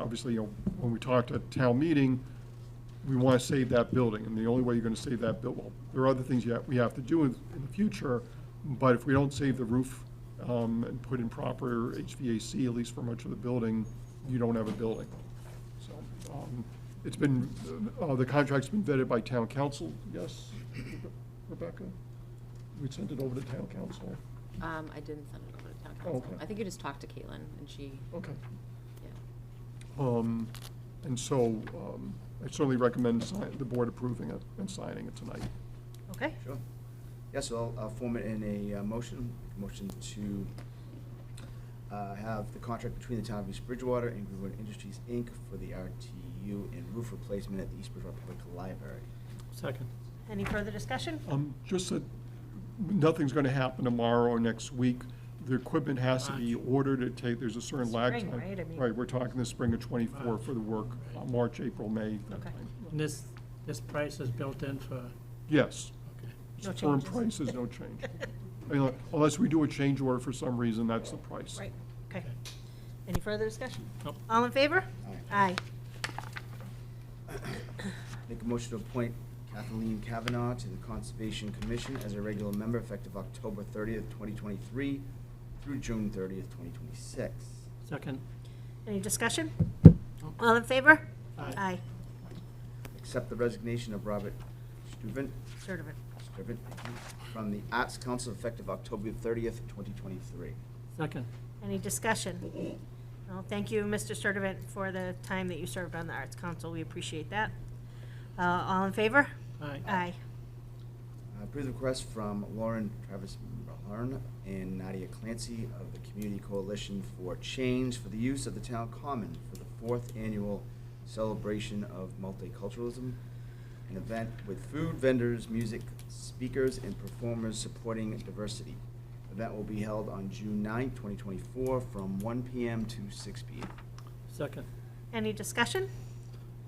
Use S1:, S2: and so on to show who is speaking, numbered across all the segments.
S1: obviously, you know, when we talked at town meeting, we want to save that building, and the only way you're going to save that building, well, there are other things you have, we have to do in, in the future, but if we don't save the roof, um, and put in proper HVAC, at least for much of the building, you don't have a building. So, um, it's been, uh, the contract's been vetted by town council, yes, Rebecca? We sent it over to town council,
S2: Um, I didn't send it over to town
S1: Oh,
S2: council.
S1: okay.
S2: I think you just talked to Caitlin, and she,
S1: okay.
S2: yeah.
S1: Um, And so, um, I certainly recommend si- the board approving it and signing it tonight.
S2: Okay.
S3: Sure. Yeah, so I'll, I'll form it in a uh, motion, motion to uh, have the contract between the town of East Bridgewater and Greenwood Industries, Inc. for the RTU and roof replacement at the East Bridgewater Public Library.
S4: Second.
S5: Any further discussion?
S1: Um, Just that, nothing's going to happen tomorrow or next week. The equipment has to be ordered, it take, there's a certain lag time.
S5: Spring, right? I mean-
S1: Right, we're talking the spring of '24 for the work, uh, March, April, May, that
S5: Okay.
S1: time.
S4: And this, this price is built in for,
S1: Yes.
S4: okay.
S1: It's
S5: No
S1: Firm
S5: changes.
S1: prices, no change. I mean, Unless we do a change order for some reason, that's the price.
S5: Right, okay. Any further discussion?
S4: Nope.
S5: All in favor? Aye.
S3: Make a motion to appoint Kathleen Kavanaugh to the Conservation Commission as a regular member effective October thirtieth, twenty twenty-three through June thirtieth, twenty twenty-six.
S4: Second.
S5: Any discussion? All in favor?
S4: Aye.
S3: Accept the resignation of Robert Steuben,
S5: Servant.
S3: Steuben, thank you, from the Arts Council effective October thirtieth, twenty twenty-three.
S4: Second.
S5: Any discussion? Well, thank you, Mr. Servant, for the time that you served on the Arts Council. We appreciate that. Uh, All in favor?
S4: Aye.
S5: Aye.
S3: Uh, Approve the request from Lauren Travis Mahern and Nadia Clancy of the Community Coalition for Change for the use of the town common for the fourth annual celebration of multiculturalism, an event with food vendors, music speakers, and performers supporting diversity. The Event will be held on June 9, twenty twenty-four, from one PM to six PM.
S4: Second.
S5: Any discussion?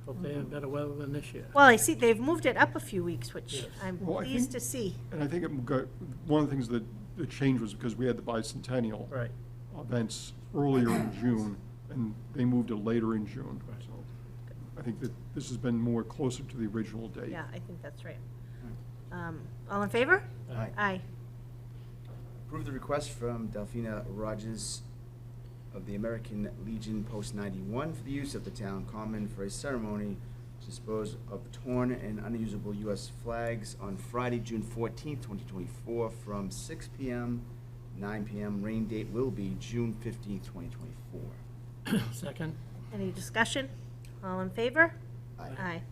S4: Hope they have better weather than this year.
S5: Well, I see they've moved it up a few weeks, which
S4: Yes.
S5: I'm
S1: Well, I
S5: pleased to
S1: think-
S5: see.
S1: And I think it got, one of the things that, the change was because we had the bicentennial.
S4: Right.
S1: events earlier in June, and they moved to later in June.
S4: Right.
S1: So I think that this has been more closer to the original date.
S5: Yeah, I think that's right. Um, All in favor?
S4: Aye.
S5: Aye.
S3: Approve the request from Delphina Rogers of the American Legion Post 91 for the use of the town common for a ceremony to dispose of torn and unusable U.S. flags on Friday, June 14, 2024, from 6 p.m., 9 p.m. Rain date will be June 15, 2024.
S4: Second.
S5: Any discussion? All in favor?
S3: Aye.
S5: Aye.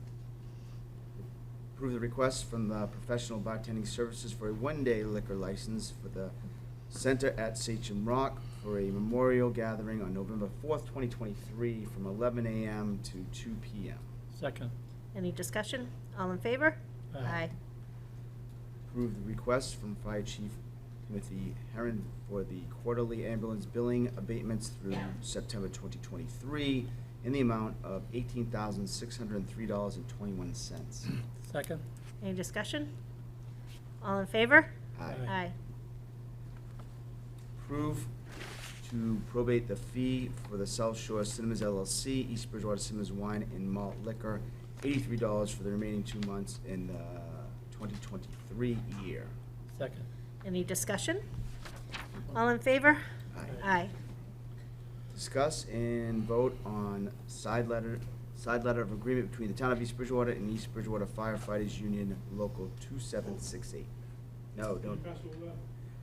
S3: Approve the request from the Professional Bartending Services for a one-day liquor license for the Center at Sachem Rock for a memorial gathering on November fourth, twenty twenty-three, from eleven AM to two PM.
S4: Second.
S5: Any discussion? All in favor?
S4: Aye.
S3: Approve the request from Fire Chief Timothy Heron for the quarterly ambulance billing abatements through September twenty twenty-three in the amount of eighteen thousand, six hundred and three dollars and twenty-one cents.
S4: Second.
S5: Any discussion? All in favor?
S4: Aye.
S5: Aye.
S3: approve to probate the fee for the South Shore Cinemas LLC, East Bridgewater Cinemas Wine and Malt Liquor, eighty-three dollars for the remaining two months in the twenty twenty-three year.
S4: Second.
S5: Any discussion? All in favor?
S3: Aye.
S5: Aye.
S3: Discuss and vote on side letter, side letter of agreement between the town of East Bridgewater and East Bridgewater Firefighters Union Local two seven six eight. No, don't.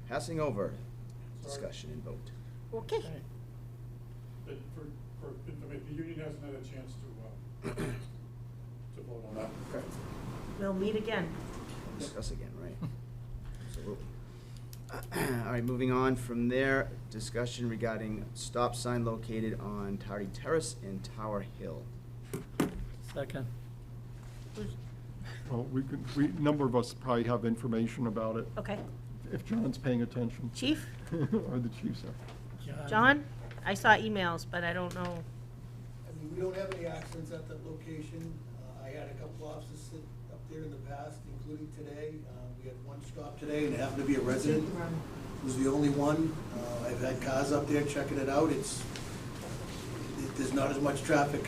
S3: Passing over discussion and vote.
S5: Okay.
S4: Aye.
S6: But for, for, I mean, the union hasn't had a chance to, uh, to vote on that.
S3: Okay.
S5: We'll meet again.
S3: discuss again, right? Absolutely. All right, moving on from there, discussion regarding stop sign located on Tardy Terrace and Tower Hill.
S4: Second.
S1: Well, we could, we, a number of us probably have information about it,
S5: Okay.
S1: if John's paying attention.
S5: Chief?
S1: Or the chief's.
S4: uh,
S5: John? I saw emails, but I don't know.
S7: I mean, we don't have any accidents at that location. Uh, I had a couple officers sit up there in the past, including today. Uh, We had one stop today and it happened to be a resident, who's the only one. Uh, I've had cars up there checking it out. It's, there's not as much traffic